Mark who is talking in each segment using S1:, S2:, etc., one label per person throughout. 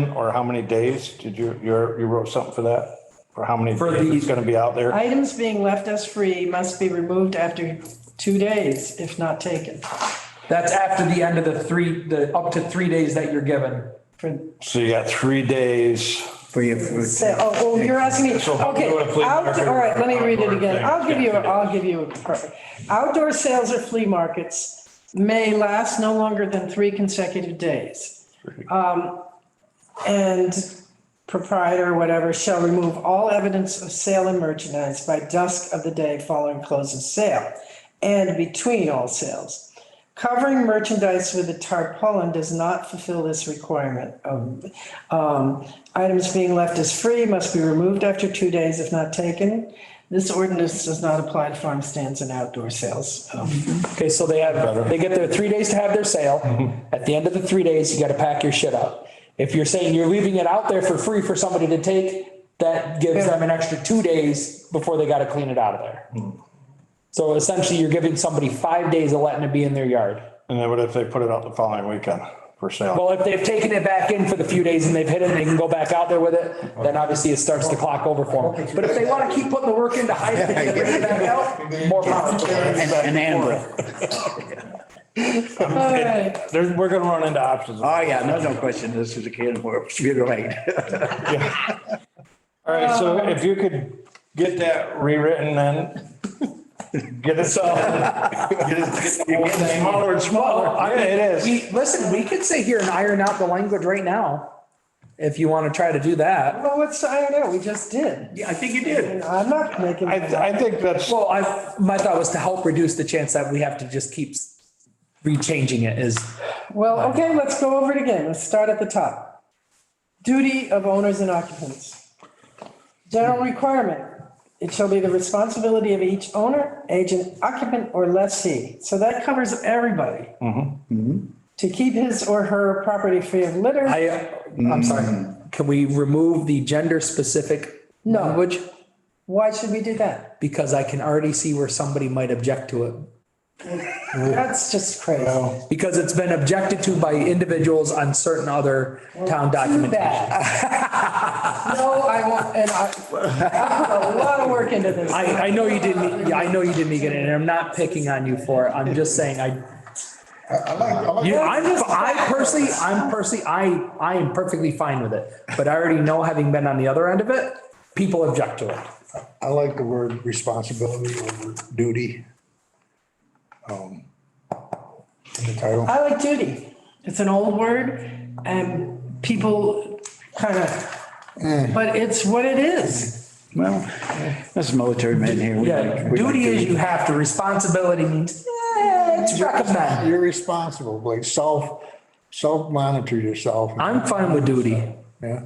S1: Or how many days? Did you, you're, you wrote something for that? For how many days it's gonna be out there?
S2: Items being left as free must be removed after two days if not taken.
S3: That's after the end of the three, the up to three days that you're given.
S2: For-
S1: So you got three days.
S4: for your food.
S2: Say, oh, well, you're asking me,
S1: So how do
S2: okay,
S1: you wanna play
S2: outdoor,
S1: market?
S2: all right, let me read it again. I'll give you,
S1: Yeah.
S2: I'll give you, a perfect. Outdoor sales or flea markets may last no longer than three consecutive days. Um, And proprietor, whatever, shall remove all evidence of sale and merchandise by dusk of the day following close of sale and between all sales. Covering merchandise with a tarpaulin does not fulfill this requirement. of, um, Items being left as free must be removed after two days if not taken. This ordinance does not apply to farm stands and outdoor sales. Um,
S3: Okay, so they have, they get their three days to have their sale. At the end of the three days, you gotta pack your shit up. If you're saying you're leaving it out there for free for somebody to take, that gives them an extra two days before they gotta clean it out of there. So essentially, you're giving somebody five days of letting it be in their yard.
S1: And then what if they put it out the following weekend for sale?
S3: Well, if they've taken it back in for the few days and they've hit it, and they can go back out there with it, then obviously it starts the clock over for them. But if they wanna keep putting the work in to hide it and bring it back out, more power to them.
S4: An an animal.
S1: There's, we're gonna run into options.
S4: Oh, yeah, no, no question. This is a can of worms. You're right.
S1: All right, so if you could get that rewritten then, get it so. You're getting smaller and smaller. Yeah, it is.
S3: We, listen, we could sit here and iron out the language right now, if you want to try to do that.
S2: Well, what's, I don't know, we just did.
S4: Yeah, I think you did.
S2: I'm not making.
S1: I, I think that's,
S3: Well, I, my thought was to help reduce the chance that we have to just keep rechanging it is,
S2: Well, okay, let's go over it again. Let's start at the top. Duty of owners and occupants. General requirement, it shall be the responsibility of each owner, agent, occupant, or lessee. So that covers everybody. To keep his or her property free of litter.
S3: I, I'm sorry,
S4: Mm.
S3: can we remove the gender specific
S2: No.
S3: language?
S2: Why should we do that?
S3: Because I can already see where somebody might object to it.
S2: That's just crazy.
S3: Because it's been objected to by individuals on certain other town
S2: Too
S3: documents.
S2: bad. No, I won't, and I, I put a lot of work into this.
S3: I, I know you didn't, yeah, I know you didn't, Egan, and I'm not picking on you for it. I'm just saying I,
S5: I like, I like.
S3: You, I'm, I personally, I'm personally, I, I am perfectly fine with it, but I already know, having been on the other end of it, people object to it.
S5: I like the word responsibility over duty. um, In the title.
S2: I like duty. It's an old word and people kind of, but it's what it is.
S4: Well, this military men here. we
S3: Yeah,
S4: like- we like
S3: duty is you have to, responsibility means, eh, it's recommend.
S5: You're responsible, like self, self-monitor yourself.
S3: I'm fine with duty.
S5: Yeah,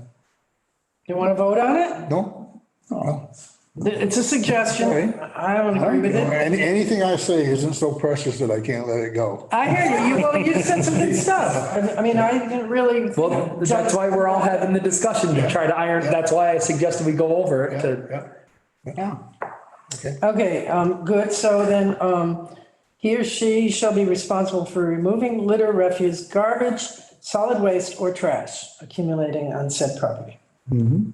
S2: You want to vote on it?
S5: no, no.
S2: It's a suggestion. I don't agree with it.
S5: Any, anything I say isn't so precious that I can't let it go.
S2: I hear you. You, well, you said some good stuff. I- I mean, I didn't really.
S3: Well, that's why we're all having the discussion to try to iron, that's why I suggested we go over it to,
S5: Yeah,
S4: Yeah.
S2: Okay, um, good. So then, um, he or she shall be responsible for removing litter, refuse, garbage, solid waste or trash accumulating on said property. You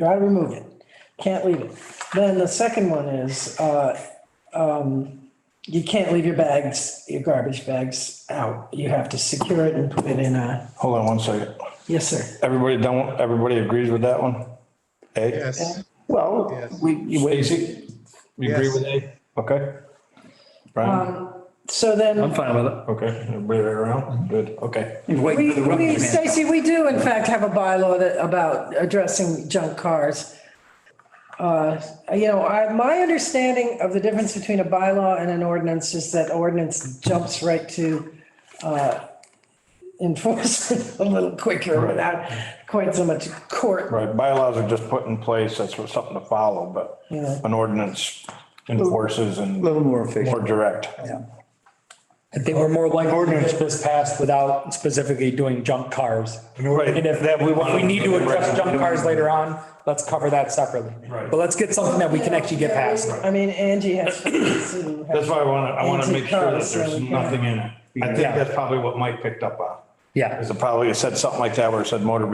S2: gotta remove it. Can't leave it. Then the second one is, uh, um, you can't leave your bags, your garbage bags out. You have to secure it and put it in a,
S1: hold on one second.
S2: yes, sir.
S1: Everybody don't, everybody agrees with that one? A?
S6: Yes,
S4: Well,
S6: yes.
S4: we, you wait.
S1: Stacy? You agree with A? Okay. Brian?
S2: So then,
S3: fine with it.
S1: Okay, everybody right around? Good, okay.
S4: you wait
S2: we,
S4: for the
S2: we,
S4: rubbish man.
S2: Stacy, we do in fact have a bylaw that, about addressing junk cars. Uh, you know, I, my understanding of the difference between a bylaw and an ordinance is that ordinance jumps right to, uh, enforcement a little quicker without quite so much court.
S1: Right, bylaws are just put in place, that's what- something to follow, but
S2: Yeah.
S1: an ordinance enforces and
S4: A little more
S1: more
S4: efficient.
S1: direct.
S3: I think we're more likely to get this passed without specifically doing junk cars.
S1: Right,
S3: And if that, we want, we need to address junk cars later on, let's cover that separately.
S1: Right.
S3: But let's get something that we can actually get past.
S2: I mean, Angie has. to-
S1: That's why I want to, I want to make sure that
S2: Anti-cars, so
S1: there's
S2: we can-
S1: nothing in it. I think
S3: Yeah.
S1: that's probably what Mike picked up on.
S3: Yeah.
S1: Is it probably said something like that where it said motor